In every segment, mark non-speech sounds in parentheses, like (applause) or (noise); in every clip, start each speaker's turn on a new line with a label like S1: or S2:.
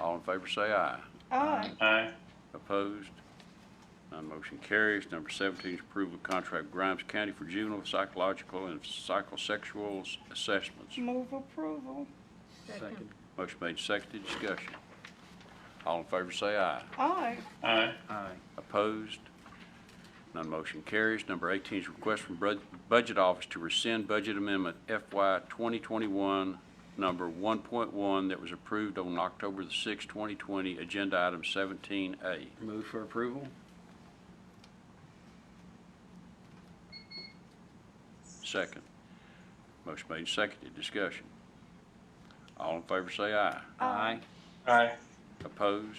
S1: All in favor say aye.
S2: Aye.
S3: Aye.
S1: Opposed? None motion carries. Number 17 is approval of contract with Grimes County for juvenile psychological and psychosexual assessments.
S2: Move approval.
S4: Second.
S1: Motion made, seconded, discussion. All in favor say aye.
S2: Aye.
S3: Aye.
S4: Aye.
S1: Opposed? None motion carries. Number 18 is request from Bud- Budget Office to rescind Budget Amendment FY 2021, number 1.1, that was approved on October the 6th, 2020, Agenda Item 17A.
S4: Move for approval?
S1: Second. Motion made, seconded, discussion. All in favor say aye.
S4: Aye.
S3: Aye.
S1: Opposed?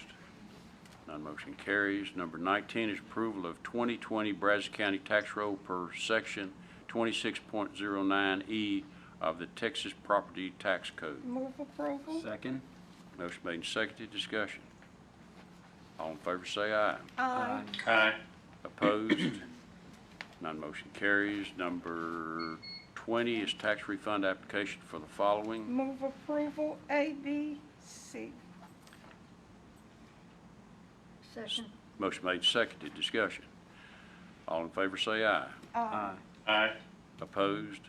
S1: None motion carries. Number 19 is approval of 2020 Brazos County Tax Roll per Section 26.09E E of the Texas Property Tax Code.
S2: Move approval.
S4: Second?
S1: Motion made and seconded, discussion. All in favor say aye.
S2: Aye.
S3: Aye.
S1: Opposed? None motion carries. Number 20 is tax refund application for the following.
S2: Move approval A, B, C.
S5: Second.
S1: Motion made, seconded, discussion. All in favor say aye.
S4: Aye.
S3: Aye.
S1: Opposed?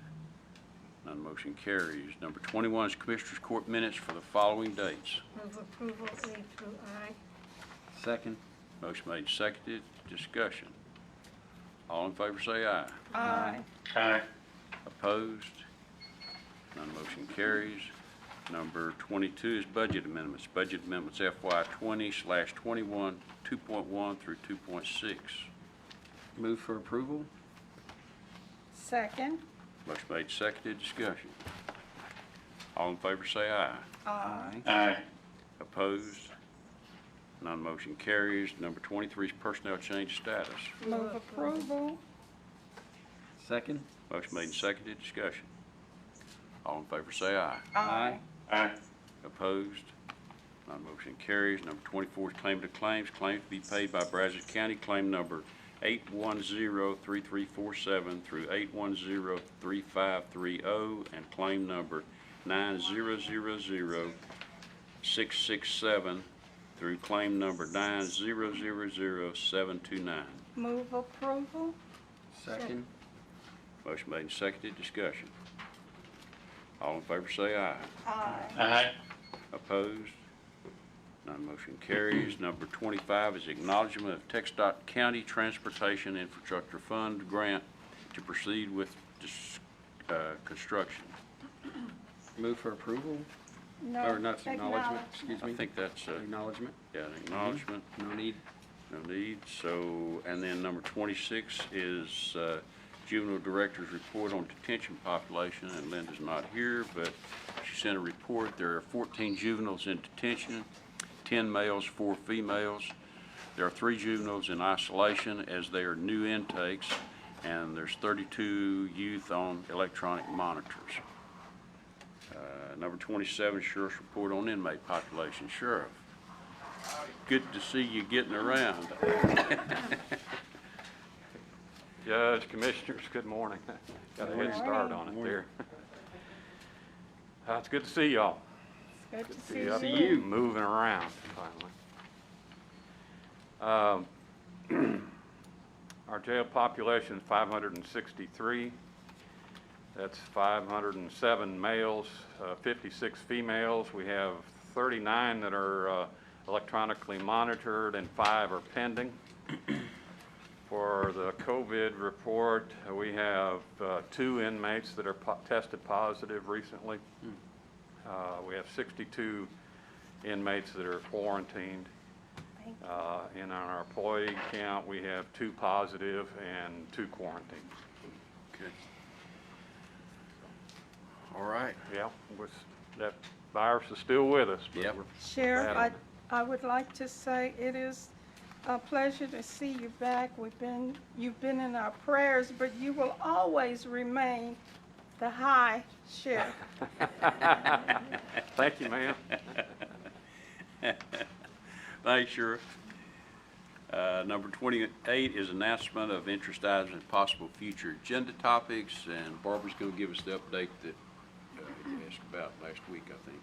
S1: None motion carries. Number 21 is Commissioners Court minutes for the following dates.
S5: Move approval A through I.
S4: Second?
S1: Motion made, seconded, discussion. All in favor say aye.
S2: Aye.
S3: Aye.
S1: Opposed? None motion carries. Number 22 is budget amendments. Budget amendments FY 20 slash 21, 2.1 through 2.6.
S4: Move for approval?
S2: Second.
S1: Motion made, seconded, discussion. All in favor say aye.
S4: Aye.
S3: Aye.
S1: Opposed? None motion carries. Number 23 is personnel change status.
S2: Move approval.
S4: Second?
S1: Motion made and seconded, discussion. All in favor say aye.
S4: Aye.
S3: Aye.
S1: Opposed? None motion carries. Number 24 is claim to claims. Claims to be paid by Brazos County, claim number 8103347 through 8103530, and claim number 9000667 through claim number 9000729.
S2: Move approval.
S4: Second?
S1: Motion made and seconded, discussion. All in favor say aye.
S2: Aye.
S3: Aye.
S1: Opposed? None motion carries. Number 25 is acknowledgment of TxDOT County Transportation Infrastructure Fund grant to proceed with dis- uh, construction.
S4: Move for approval?
S2: No.
S4: Or not, acknowledgement, excuse
S1: I
S4: me?
S1: think that's, uh,
S4: Acknowledgement,
S1: yeah, an acknowledgment,
S4: no need.
S1: no need. So, and then number 26 is uh, juvenile director's report on detention population, and Linda's not here, but she sent a report. There are 14 juveniles in detention, 10 males, 4 females. There are three juveniles in isolation as they are new intakes, and there's 32 youth on electronic monitors. Uh, Number 27, sheriff's report on inmate population. Sheriff, good to see you getting around.
S6: (laughs) Judge, Commissioners, good morning. Got a head start on it there. (laughs) Uh, It's good to see y'all.
S2: Good to see
S6: up
S2: you.
S6: and Moving around finally. Um, (clears throat) Our jail population is 563. That's 507 males, uh, 56 females. We have 39 that are uh, electronically monitored and five are pending. For the COVID report, we have uh, two inmates that are po- tested positive recently. Uh, We have 62 inmates that are quarantined. Uh, And on our employee count, we have two positive and two quarantined.
S1: Okay. All right.
S6: Yeah, was- that virus is still with us. but
S1: Yep.
S6: we're-
S2: Sheriff, I,
S6: Madam.
S2: I would like to say it is a pleasure to see you back. We've been, you've been in our prayers, but you will always remain the high sheriff.
S6: Thank you, ma'am.
S1: Thanks, Sheriff. Uh, Number 28 is announcement of interest items and possible future agenda topics, and Barbara's going to give us the update that uh, you asked about last week, I think.